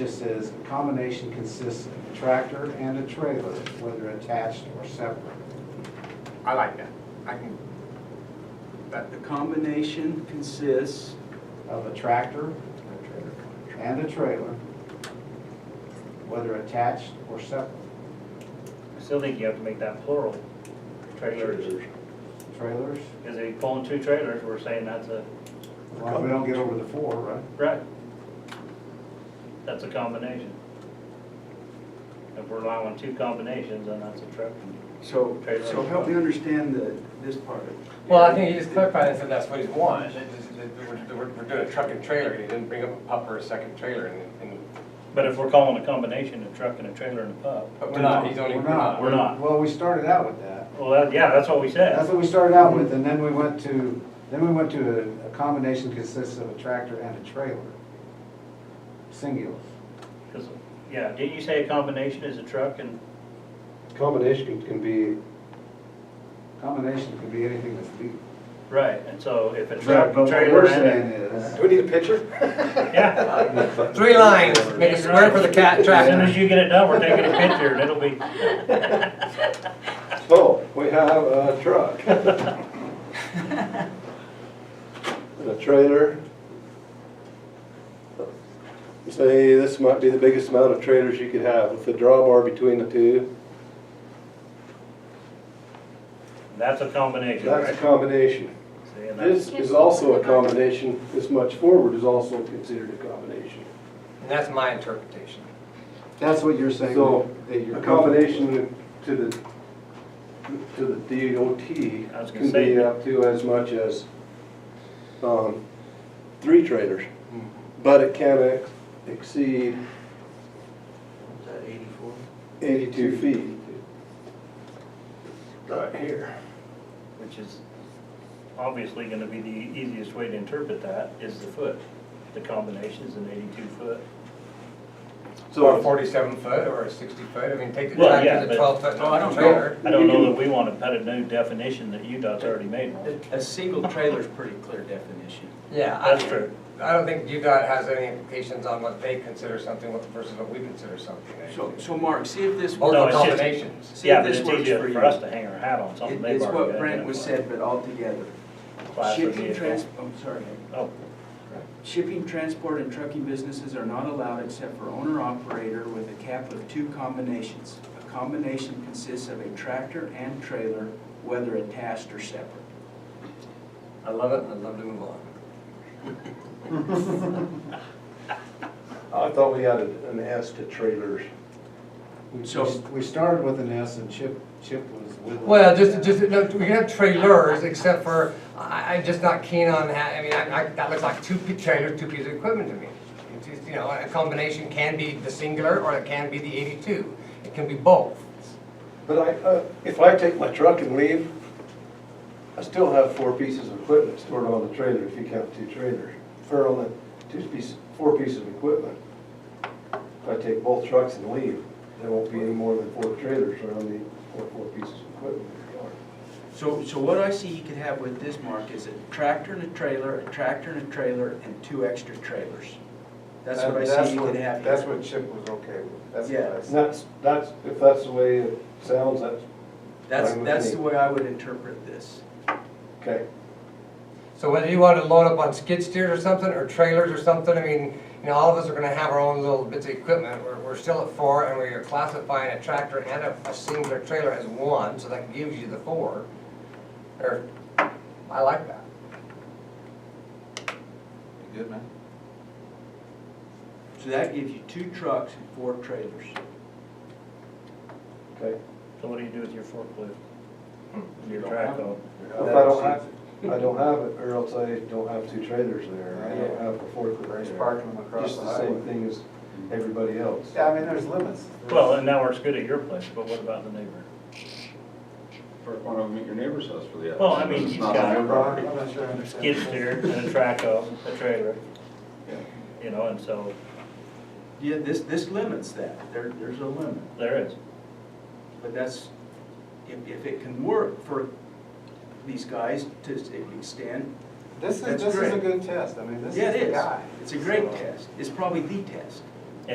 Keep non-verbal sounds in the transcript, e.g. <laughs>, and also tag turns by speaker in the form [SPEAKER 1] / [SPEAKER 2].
[SPEAKER 1] This is, the combination consists of a tractor and a trailer, whether attached or separate.
[SPEAKER 2] I like that. I can, that,
[SPEAKER 3] The combination consists,
[SPEAKER 1] Of a tractor and a trailer, whether attached or separate.
[SPEAKER 4] I still think you have to make that plural, trailers,
[SPEAKER 1] Trailers,
[SPEAKER 4] because if you pull in two trailers, we're saying that's a,
[SPEAKER 1] as long as we don't get over the four, right?
[SPEAKER 4] right? That's a combination. If we're allowing two combinations, then that's a truck.
[SPEAKER 3] so, so help me understand the, this part.
[SPEAKER 5] Well, I think he just clarified and said that's what he's wanting, that this- that we're, we're- we're doing a truck and trailer, he didn't bring up a pup or a second trailer, and, and,
[SPEAKER 4] But if we're calling a combination a truck and a trailer and a pub,
[SPEAKER 5] but we're not, he's only,
[SPEAKER 1] We're
[SPEAKER 5] we're not.
[SPEAKER 4] We're not.
[SPEAKER 1] Well, we started out with that.
[SPEAKER 4] well, that, yeah, that's what we
[SPEAKER 1] That's
[SPEAKER 4] said.
[SPEAKER 1] what we started out with, and then we went to, then we went to a, a combination consists of a tractor and a trailer. Singular.
[SPEAKER 4] 'Cause, yeah, didn't you say a combination is a truck and,
[SPEAKER 6] Combination can be,
[SPEAKER 1] Combination could be anything that's legal.
[SPEAKER 4] right, and so if a
[SPEAKER 1] But
[SPEAKER 4] truck,
[SPEAKER 1] what
[SPEAKER 4] trailer
[SPEAKER 1] we're
[SPEAKER 4] and,
[SPEAKER 1] saying is.
[SPEAKER 6] do we need a picture?
[SPEAKER 4] a- yeah.
[SPEAKER 5] <laughs> Three lines, <laughs> make a square for the cat
[SPEAKER 4] As soon as
[SPEAKER 5] tractor.
[SPEAKER 4] you get it done, we're taking a picture and it'll be,
[SPEAKER 6] Oh, we have a
[SPEAKER 5] <laughs>
[SPEAKER 6] truck. And a trailer. You Say, this might be the biggest amount of trailers you could have, with the drawbar between the two.
[SPEAKER 4] that's a combination,
[SPEAKER 6] That's a
[SPEAKER 4] right?
[SPEAKER 6] combination.
[SPEAKER 4] See, and that's-
[SPEAKER 6] This is also a combination, this much forward is also considered a combination.
[SPEAKER 5] And that's my interpretation.
[SPEAKER 1] That's what you're saying.
[SPEAKER 6] So,
[SPEAKER 1] that you're
[SPEAKER 6] A combination to the, to the
[SPEAKER 4] I was
[SPEAKER 6] DOT
[SPEAKER 4] gonna
[SPEAKER 6] can
[SPEAKER 4] say-
[SPEAKER 6] be up to as much as, um, three trailers.
[SPEAKER 4] Hmm.
[SPEAKER 6] But it can ex- exceed
[SPEAKER 3] Eighty-four?
[SPEAKER 6] eighty-two feet. Right here.
[SPEAKER 4] which is obviously gonna be the easiest way to interpret that, is the foot. The combination is an eighty-two foot.
[SPEAKER 5] Or a
[SPEAKER 6] So,
[SPEAKER 5] forty-seven foot, or a sixty foot, I mean, take the
[SPEAKER 4] Well, yeah,
[SPEAKER 5] tractor, the
[SPEAKER 4] but-
[SPEAKER 5] twelve foot, no, I don't
[SPEAKER 6] No.
[SPEAKER 5] trailer.
[SPEAKER 4] I don't know that we wanna put a new definition that UDOT's already made one.
[SPEAKER 2] a single trailer's pretty clear definition.
[SPEAKER 5] Yeah. I-
[SPEAKER 4] That's true.
[SPEAKER 5] I don't think UDOT has any implications on what they consider something versus what we consider something.
[SPEAKER 2] So, so Mark, see if this,
[SPEAKER 5] Both
[SPEAKER 4] No,
[SPEAKER 5] are
[SPEAKER 4] it's just-
[SPEAKER 5] combinations.
[SPEAKER 2] see
[SPEAKER 4] Yeah,
[SPEAKER 2] if
[SPEAKER 4] but
[SPEAKER 2] this
[SPEAKER 4] it's
[SPEAKER 2] works for
[SPEAKER 4] easier
[SPEAKER 2] you.
[SPEAKER 4] for us to hang our hat on something
[SPEAKER 2] It-
[SPEAKER 4] they've
[SPEAKER 2] It's
[SPEAKER 4] already
[SPEAKER 2] what Brent was
[SPEAKER 4] identified.
[SPEAKER 2] said, but all together.
[SPEAKER 4] Class would be
[SPEAKER 2] Shipping,
[SPEAKER 4] a-
[SPEAKER 2] trans, I'm sorry.
[SPEAKER 4] Oh,
[SPEAKER 2] Shipping, transport, and trucking businesses are not allowed except for owner-operator with a cap of two combinations. A combination consists of a tractor and trailer, whether attached or separate.
[SPEAKER 5] I love it, and I'd love to move on.
[SPEAKER 6] I thought we added an S to trailers.
[SPEAKER 1] We-
[SPEAKER 2] So-
[SPEAKER 1] We started with an S and Chip, Chip was with. us.
[SPEAKER 5] Well, just, just, no, we can have trailers, except for, I, I'm just not keen on that, I mean, I, I, that looks like two pe- trailers, two pieces of equipment to me. It's just, you know, a combination can be the singular, or it can be the eighty-two, it can be both.
[SPEAKER 6] But I, uh, if I take my truck and leave, I still have four pieces of equipment stored on the trailer if you count two trailers. Or on the two pieces, four pieces of equipment. If I take both trucks and leave, there won't be any more than four trailers around the, or four pieces of equipment in the yard.
[SPEAKER 2] So, so what I see you could have with this, Mark, is a tractor and a trailer, a tractor and a trailer, and two extra trailers. That's what I see you
[SPEAKER 1] what-
[SPEAKER 2] could have
[SPEAKER 1] That's
[SPEAKER 2] here.
[SPEAKER 1] what Chip was okay with, that's
[SPEAKER 2] Yeah.
[SPEAKER 1] what I
[SPEAKER 6] And
[SPEAKER 1] said.
[SPEAKER 6] that's, that's, if that's the way it sounds, that's,
[SPEAKER 2] That's,
[SPEAKER 6] I'm with
[SPEAKER 2] that's
[SPEAKER 6] you.
[SPEAKER 2] the way I would interpret this.
[SPEAKER 6] okay.
[SPEAKER 5] So whether you want to load up on skid steers or something, or trailers or something, I mean, you know, all of us are gonna have our own little bits of equipment, we're, we're still at four, and we're classifying a tractor and a, a singular trailer as one, so that gives you the four. Or, I like that.
[SPEAKER 2] Good, man. So that gives you two trucks and four trailers.
[SPEAKER 6] Okay.
[SPEAKER 4] so what do you do with your forklift?
[SPEAKER 1] Hmm. You
[SPEAKER 4] Your
[SPEAKER 1] don't
[SPEAKER 4] track
[SPEAKER 1] have
[SPEAKER 4] hoe?
[SPEAKER 6] If I don't have, I don't have it, or else I don't have two trailers there, I don't have a fourth
[SPEAKER 1] Just
[SPEAKER 6] trailer.
[SPEAKER 1] parking them across
[SPEAKER 6] Just
[SPEAKER 1] the
[SPEAKER 6] the same
[SPEAKER 1] highway.
[SPEAKER 6] thing as everybody else.
[SPEAKER 1] Yeah, I mean, there's limits.
[SPEAKER 4] Well, and that works good at your place, but what about the neighbor?
[SPEAKER 7] Park one of them at your neighbor's house for the.
[SPEAKER 4] Well, I mean,
[SPEAKER 7] It's
[SPEAKER 4] he's
[SPEAKER 7] not
[SPEAKER 4] got-
[SPEAKER 7] on your property.
[SPEAKER 1] I'm not sure I understand.
[SPEAKER 4] Skid steer and a track hoe, a trailer. You know, and so
[SPEAKER 2] Yeah, this, this limits that, there, there's a limit,
[SPEAKER 4] there is.
[SPEAKER 2] but that's, if, if it can work for these guys to s- extend,
[SPEAKER 1] This is,
[SPEAKER 2] That's
[SPEAKER 1] this is a
[SPEAKER 2] great.
[SPEAKER 1] good test, I mean, this
[SPEAKER 2] yeah,
[SPEAKER 1] is
[SPEAKER 2] it
[SPEAKER 1] the
[SPEAKER 2] is.
[SPEAKER 1] guy.
[SPEAKER 2] It's a great
[SPEAKER 1] So-
[SPEAKER 2] test, it's probably the test.